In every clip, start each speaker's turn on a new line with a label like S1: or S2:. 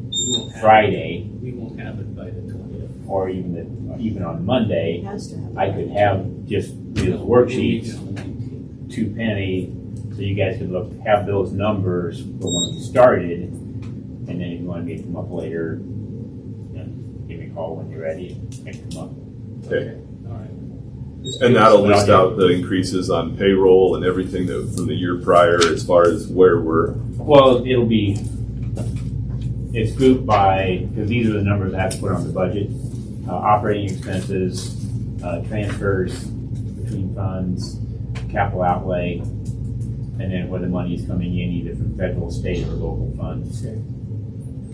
S1: won't have. it.
S2: Friday
S1: We won't have it by the twentieth.
S2: or even the, even on Monday,
S3: has to have.
S2: I could have just these worksheets to Penny, so you guys could look, have those numbers for when you started. And then if you wanna make them up later, then give me a call when you're ready and make them up.
S4: Okay.
S1: All right. Just
S4: And that'll
S2: Yeah.
S4: list out the increases on payroll and everything that, from the year prior as far as where we're,
S2: Well, it'll be, it's grouped by, because these are the numbers I have to put on the budget. Uh, operating expenses, uh, transfers between funds, capital outlay, and then where the money is coming in either from federal, state, or local funds.
S1: Okay.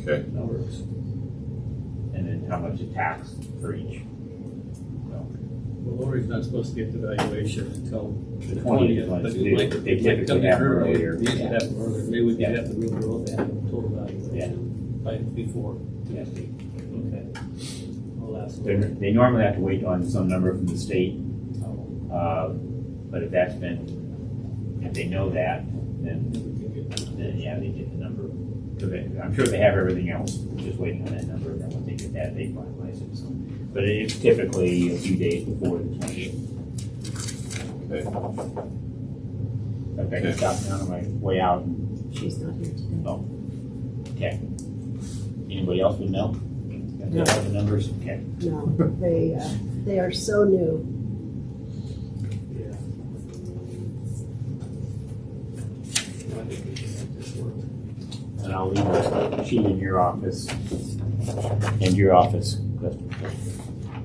S4: okay,
S1: That works.
S2: And then how much it tax for each. So,
S1: Well, Lori's not supposed to get the valuation until
S2: The
S1: the
S2: twentieth
S1: twentieth,
S2: ones,
S1: but
S2: they-
S1: it might,
S2: they
S1: it might come
S2: typically
S1: in
S2: have
S1: earlier.
S2: earlier.
S1: We should
S2: Yeah.
S1: have it earlier. Maybe we could
S2: Yeah.
S1: have the real world have the total valuation by, before.
S2: yes, they-
S1: Okay. Well, that's.
S2: they're- They normally have to wait on some number from the state,
S1: Oh,
S2: uh, but if that's been, if they know that, then
S1: we can get that.
S2: then yeah, they get the number. So they, I'm sure they have everything else, just waiting on that number, and then when they get that, they finalize it, so. But it's typically a few days before the twentieth.
S4: okay.
S2: In fact, I stopped down on my way out, and,
S3: She's not here today.
S2: oh, okay. Anybody else would know? Got
S3: No.
S2: The numbers, okay.
S3: No, they, uh, they are so new.
S1: Yeah. No, I think we should make this work.
S2: And I'll leave the sheet in your office, in your office, to,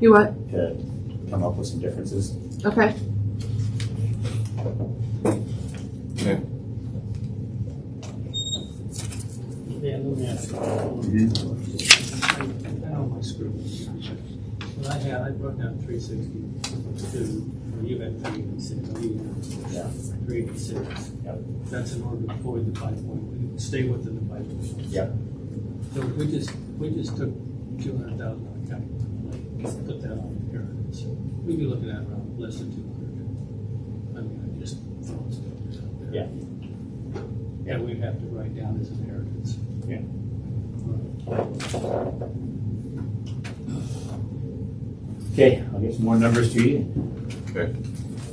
S3: You what?
S2: to come up with some differences.
S3: Okay.
S1: Yeah, let me ask you. I know my screw. Well, I had, I brought down three sixty-two, or you had three eighty-six, or you
S2: Yeah.
S1: had three eighty-six.
S2: Yep.
S1: That's in order to avoid the five point, stay within the five point.
S2: Yep.
S1: So we just, we just took two hundred thousand out of county, like, put that on here, so we'd be looking at around less than two hundred. I mean, I just throwing stuff out there.
S2: Yeah.
S1: And we'd have to write down as inheritance.
S2: Yeah. Okay, I'll get some more numbers to you,
S4: Okay.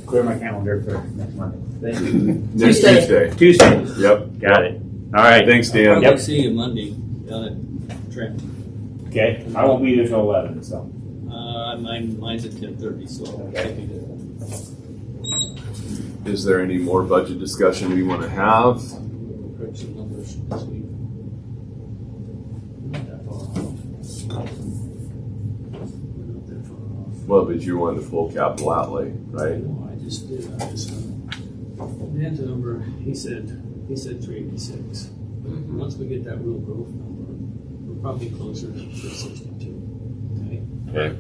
S2: clear my calendar for next Monday. Thank you.
S4: Next
S3: Tuesday.
S4: Tuesday.
S2: Tuesday.
S4: Yep.
S2: Got it. All right.
S4: Thanks, Dan.
S2: Yep.
S1: see you Monday down at Trent.
S2: Okay. I won't be there till eleven, so.
S1: Uh, mine, mine's at ten thirty, so I'll
S2: Okay.
S1: take it.
S4: Is there any more budget discussion we want to have?
S1: We'll Approach some numbers this week. We're Not that far off. We're not that far off.
S4: Well, but you're on the full capital outlay, right?
S1: No, I just did, I just, uh, Dan's number, he said, he said three eighty-six. Once we get that real growth number, we're probably closer to three sixty-two, okay?
S4: Okay.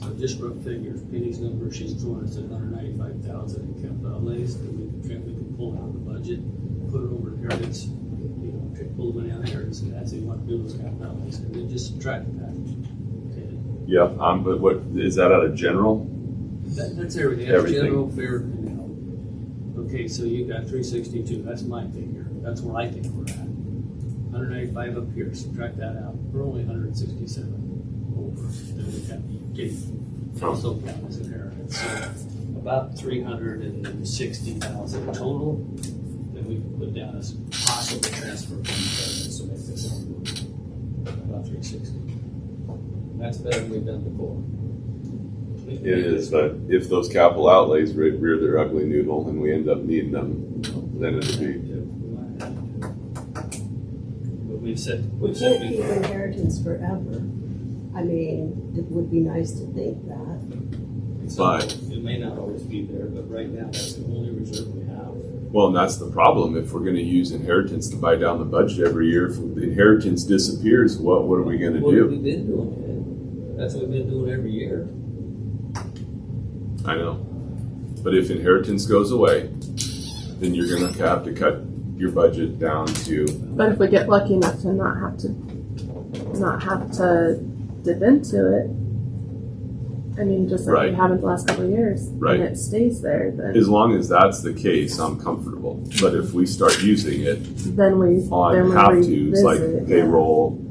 S1: So just rough figures, Penny's number, she's throwing us at hundred ninety-five thousand in capital outlays that we can, trim- we can pull out of the budget, put it over to inheritance, you know, tr- pull the money out of inheritance, and that's what we want to do with capital outlays, and then just subtract that. Okay?
S4: Yep, um, but what, is that out of general?
S1: That, that's everything, that's
S4: Everything.
S1: general fair and health. Okay, so you got three sixty-two, that's my figure, that's where I think we're at. Hundred ninety-five up here, subtract that out, we're only hundred sixty-seven over, then we got, get, also count as inheritance. So uh, About three hundred and sixty thousand total, that we can put down as possible transfer from inheritance to make this all work. About three sixty. That's better than we've done before.
S4: It is, but if those capital outlays re- rear their ugly noodle and we end up needing them, then it'd be,
S1: But we've said,
S3: We
S1: we've
S3: can't
S1: said
S3: keep
S1: before,
S3: inheritance forever. I mean, it would be nice to think that.
S1: so
S4: Fine.
S1: it may not always be there, but right now, that's the only reserve we have.
S4: well, and that's the problem. If we're gonna use inheritance to buy down the budget every year, if the inheritance disappears, what, what are we gonna
S1: What have
S4: do?
S1: we been doing? That's what we've been doing every year.
S4: I know. But if inheritance goes away, then you're gonna have to cut your budget down to,
S5: But if we get lucky enough to not have to, not have to dip into it, I mean, just like
S4: Right.
S5: we have in the last couple of years,
S4: Right.
S5: and it stays there, then
S4: as long as that's the case, I'm comfortable. But if we start using it
S5: then we
S4: on
S5: then we
S4: have-tos
S5: revisit
S4: like
S5: it.
S4: payroll,